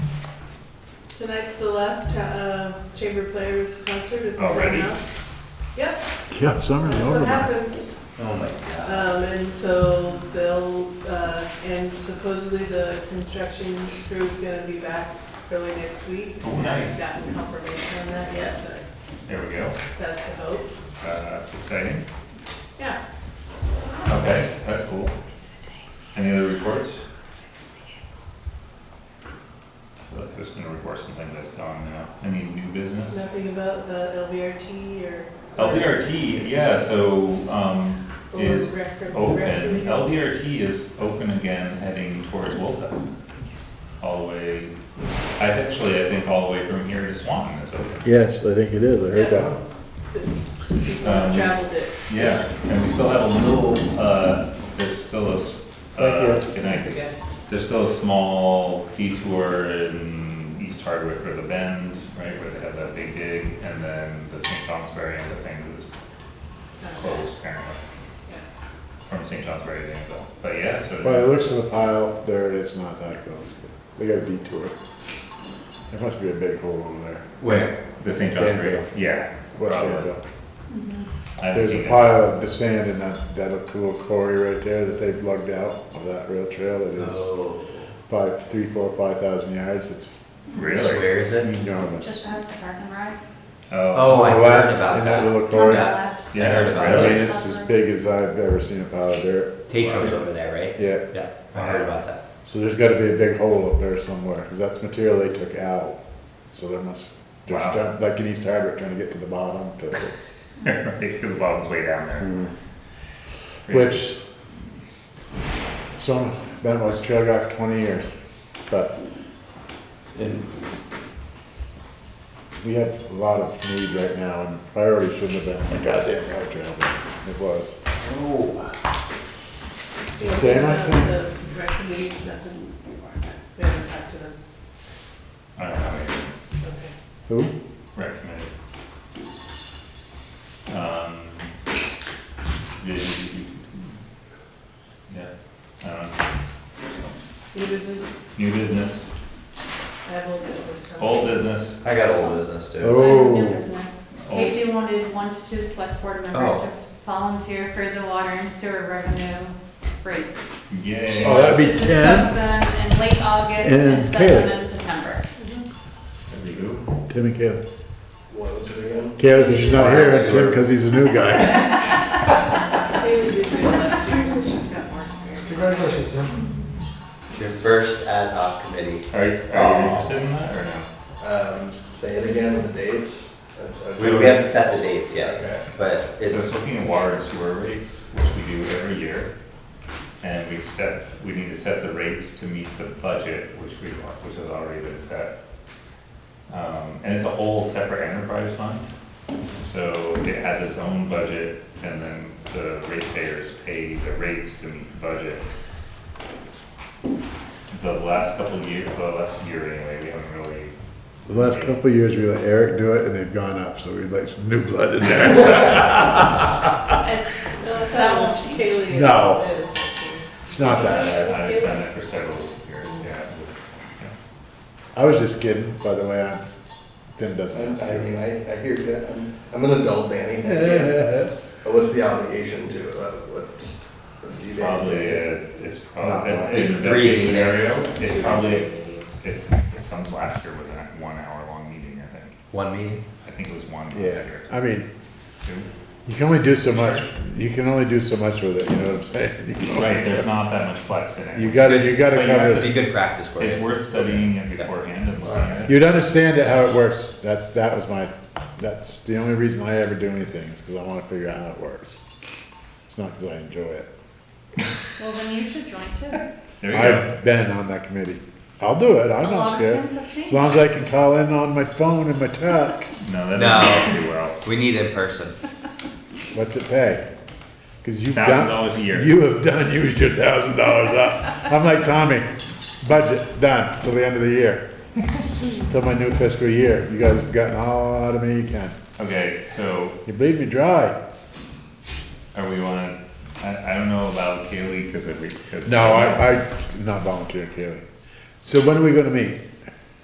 Tonight's the last uh, Chamber Players concert at the Already? House. Yep, Yeah, summer's that's over. what man. happens. Oh my god. Um, and so they'll, uh, and supposedly the construction crew is gonna be back early next week. Oh, nice. I've Gotten confirmation on that yet, There we go. but that's the hope. Uh, that's exciting. Yeah, Okay, that's cool. Any other reports? I feel like I was gonna report something that's gone now. Any new business? nothing about the LVRT or. LVRT, yeah, so, um, or is rec- rec- open. rec- LVRT is open again heading towards Wolfett. All the way, I actually, I think all the way from here to Swanton is open. Yes, I think it is, I heard that. Because people have Um, traveled it. Yeah, and we still have a little, uh, there's still a, s- uh, good night. Again. There's still a small detour in East Hardwick or the Bend, right, where they have that big dig, and then the St. Johnsbury and the thing is closed apparently. From St. Johnsbury to Danville, but yeah, Well, it so, looks in the pile, there it is, not that close, but they got a detour. There must be a big hole over there. where, the St. Johnsbury, Danville. yeah, What's probably. that? I haven't There's seen a it. pile of sand in that, that little quarry right there that they've lugged out of that rail trail that is Oh, five, three, four, five thousand yards, it's Really? Where is it? enormous. Just past the parking lot. Oh, Oh, I heard Left about In that that. little quarry, Yeah. I yeah, heard about I it. mean, really? it's as big as I've ever seen a pile of dirt, Tatro's over there, right? yeah. Yeah, I heard about that. So there's got to be a big hole up there somewhere because that's material they took out. So there must, there's Wow. trying- like in East Harbor, trying to get to the bottom to fix. Because the bottom's way down there. Mm. Which, so been was a trail guy for 20 years, but in, we have a lot of need right now, and priority shouldn't have been the goddamn rail trail, but it was. Oh. Yeah, Same, I the- think. the rec committee, nothing, we haven't talked to them, I don't know, maybe. okay. Who? recommended. Um, yeah, yeah, I don't know. New business, New business, I have old business. now. old business, I got old business too. Oh. New business. Oh. Casey wanted one to two select board members Oh. to volunteer for the water and sewer revenue rates. yay. She Oh, that'd wants be to Discuss them in late August and and set Caleb. them in September. There we go. Tim and Oh, Kayla. Kayla, because she's not here, and Tim, because he's a new guy. Maybe we did it last year, so she's got more experience. Congratulations, Tim. It's Your first ad hoc committee. Are you, are you interested in that or no? Um, say it again with the dates. That's- that's- We, we haven't set the dates yet, Okay. but So it's it's, looking at water and sewer rates, which we do every year. And we set, we need to set the rates to meet the budget, which we, which has already been set. Um, and it's a whole separate enterprise fund. So it has its own budget and then the ratepayers pay the rates to meet the budget. The last couple of years, the last year anyway, we haven't really, The last couple of years, we let Eric do it, and they've gone up, so we'd like some new blood in there. No, I That thought it was won't- Kaylee. No. that was last year. It's not that bad. I've done it for several years, yeah. I was just kidding, by the way. I'm, Tim doesn't. I I mean, I, I hear that. I'm, I'm an adult, Danny. Not But what's the obligation to, uh, what, just a few days? Probably, a- it's probably, Not in the best Three case scenario, meetings. it's probably, it's, some last year was a one hour long meeting, I think. one meeting? I think it was one last yeah. year. I mean, Two. you can only do so much. You can only do so much with it. You know what I'm saying? You can only- Right, there's not that much flex in it. You gotta, you gotta But you have cover. to- it. It'd be good practice for It's you. worth studying it beforehand and looking at it. You'd understand it how it works. That's that was my. That's the only reason I ever do anything is because I want to figure out how it works. It's not because I enjoy it. Well, then you should join too. There you go. I've been on that committee. I'll do it. I'm A lot not of scared. things have As long as I can call in on my phone and my truck. No, that No. doesn't work too well. We need in person. What's it pay? Because you've Thousand done, dollars a year. you have done, used your thousand dollars up. I'm like Tommy, budget's done till the end of the year. Till my new fiscal year. You guys have gotten all out of me you can. Okay, so You bleed me dry. are we wanna, I, I don't know about Kaylee, cause it, because. No, I, I, not volunteer, Kaylee. So when are we gonna meet?